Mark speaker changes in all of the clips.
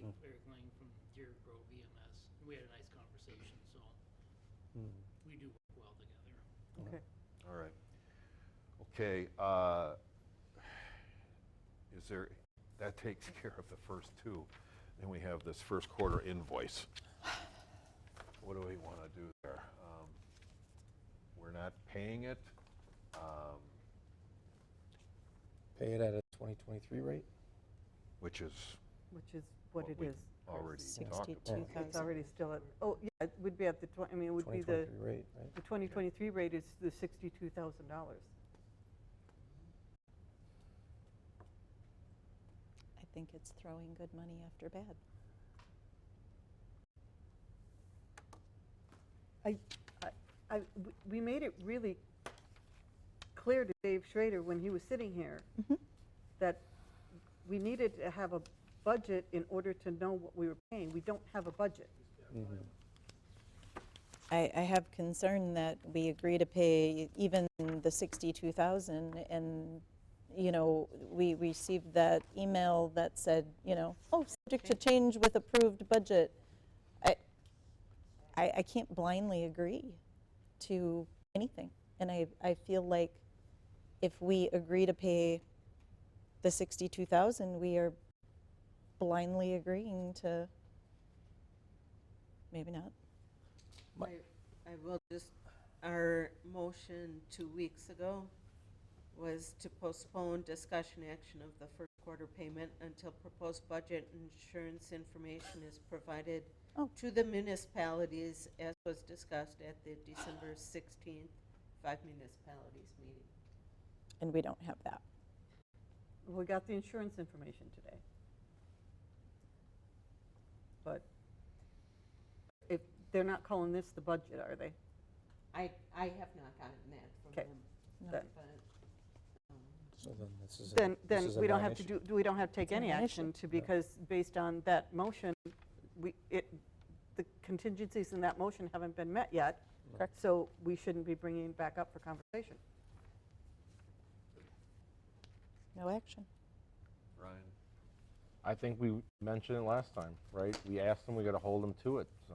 Speaker 1: E we had a nice conversation, so we do work well together.
Speaker 2: Okay.
Speaker 3: All right. Okay, uh, is there, that takes care of the first two. Then we have this first quarter invoice. What do we want to do there? Um, We're not paying it. um,
Speaker 4: Pay it at a 2023 rate?
Speaker 3: Which is
Speaker 2: Which is what
Speaker 3: What
Speaker 2: it
Speaker 3: we
Speaker 2: is.
Speaker 3: already talked about.
Speaker 5: 62,000.
Speaker 2: It's already still at, oh, yeah, it would be at the, twen- I mean, it would be the,
Speaker 4: 2023 rate, right?
Speaker 2: the 2023 rate is the $62,000.
Speaker 5: I think it's throwing good money after bad.
Speaker 2: I, we- we made it really clear to Dave Schrader when he was sitting here
Speaker 5: Mhm.
Speaker 2: that we needed to have a budget in order to know what we were paying. We don't have a budget.
Speaker 5: I, I have concern that we agree to pay even the 62,000 and, you know, we received that email that said, you know, oh, subject to change with approved budget. I, I, I can't blindly agree to anything. And I, I feel like if we agree to pay the 62,000, we are blindly agreeing to, maybe not.
Speaker 6: I I will just, our motion two weeks ago was to postpone discussion action of the first quarter payment until proposed budget insurance information is provided
Speaker 5: Oh.
Speaker 6: to the municipalities as was discussed at the December 16th five municipalities meeting.
Speaker 5: And we don't have that.
Speaker 2: We got the insurance information today. But if, they're not calling this the budget, are they?
Speaker 6: I, I have not gotten that from
Speaker 2: Okay.
Speaker 6: them.
Speaker 5: No.
Speaker 2: That-
Speaker 6: but, um,
Speaker 4: So then this is. a-
Speaker 2: Then,
Speaker 4: this
Speaker 2: then
Speaker 4: is a
Speaker 2: we don't have to
Speaker 4: non-issue.
Speaker 2: do, we don't have to take
Speaker 5: It's a
Speaker 2: any
Speaker 5: non-issue.
Speaker 2: action to, because based on that motion, we, it, the contingencies in that motion haven't been met yet. Correct. So we shouldn't be bringing it back up for conversation.
Speaker 5: No action.
Speaker 3: Ryan?
Speaker 7: I think we mentioned it last time, right? We asked them, we gotta hold them to it, so.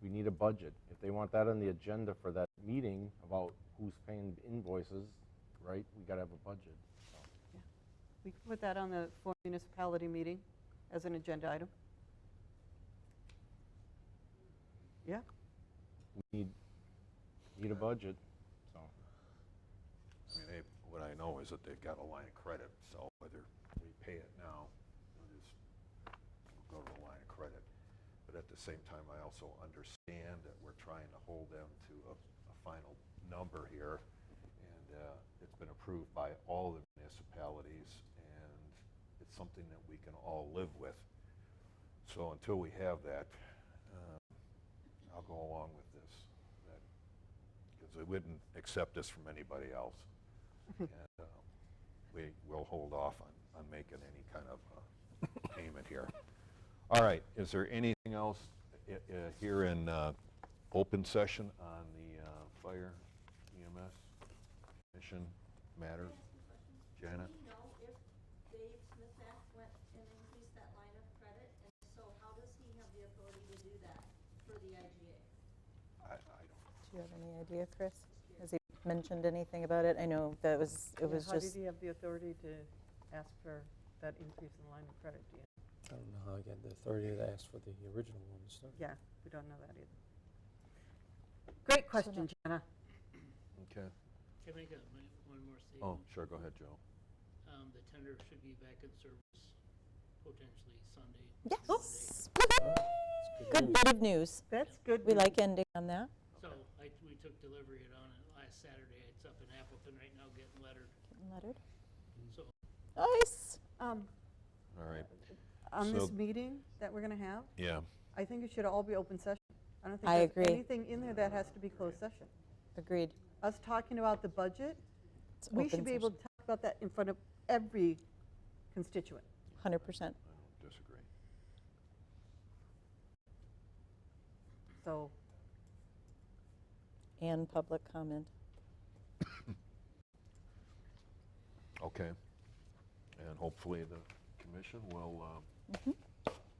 Speaker 7: We need a budget. If they want that on the agenda for that meeting about who's paying invoices, right, we gotta have a budget.
Speaker 2: We can put that on the four municipality meeting as an agenda item. Yeah,
Speaker 7: We need, need a budget, so.
Speaker 3: I mean, they, what I know is that they've got a line of credit, so whether we pay it now, we'll just go to the line of credit. But at the same time, I also understand that we're trying to hold them to a, a final number here. And, uh, it's been approved by all the municipalities and it's something that we can all live with. So until we have that, um, I'll go along with this, that because we wouldn't accept this from anybody else. And uh, we will hold off on, on making any kind of uh, payment here. All right, is there anything else i- i- here in uh, open session on the uh, fire EMS mission matters? Janet?
Speaker 8: Do you know if Dave Smithak went and increased that line of credit? And if so how does he have the authority to do that for the IGA?
Speaker 3: I, I don't,
Speaker 5: Do you have any idea, Chris? Has he mentioned anything about it? I know that was, it was
Speaker 2: how did
Speaker 5: just,
Speaker 2: he have the authority to ask for that increase in line of credit? Do you-
Speaker 4: I don't know how I get the authority to ask for the original one to start.
Speaker 2: Yeah, we don't know that either. Great question, Jenna.
Speaker 3: okay.
Speaker 1: Can I get my- one more statement?
Speaker 3: Oh, sure, go ahead, Joe.
Speaker 1: Um, the tender should be back in service potentially Sunday.
Speaker 5: yes! Woo-hoo!
Speaker 2: Oh.
Speaker 5: Good bit of news.
Speaker 2: That's good.
Speaker 5: We
Speaker 2: news.
Speaker 5: like ending on that.
Speaker 1: So I, we took delivery it on it last Saturday. It's up in Appleton right now getting lettered.
Speaker 5: Lettered.
Speaker 1: So
Speaker 5: Nice!
Speaker 2: Um,
Speaker 3: All right,
Speaker 2: On this
Speaker 3: So-
Speaker 2: meeting that we're going to have,
Speaker 3: yeah.
Speaker 2: I think it should all be open session. I don't think
Speaker 5: I
Speaker 2: there's
Speaker 5: agree.
Speaker 2: anything in there that has to be closed session.
Speaker 5: Agreed.
Speaker 2: Us talking about the budget,
Speaker 5: It's
Speaker 2: we
Speaker 5: open
Speaker 2: should be able to talk about that in front of every constituent.
Speaker 5: session. 100%.
Speaker 3: I don't disagree.
Speaker 2: So
Speaker 5: And public comment.
Speaker 3: Okay. And hopefully the commission will uh,
Speaker 5: Mhm.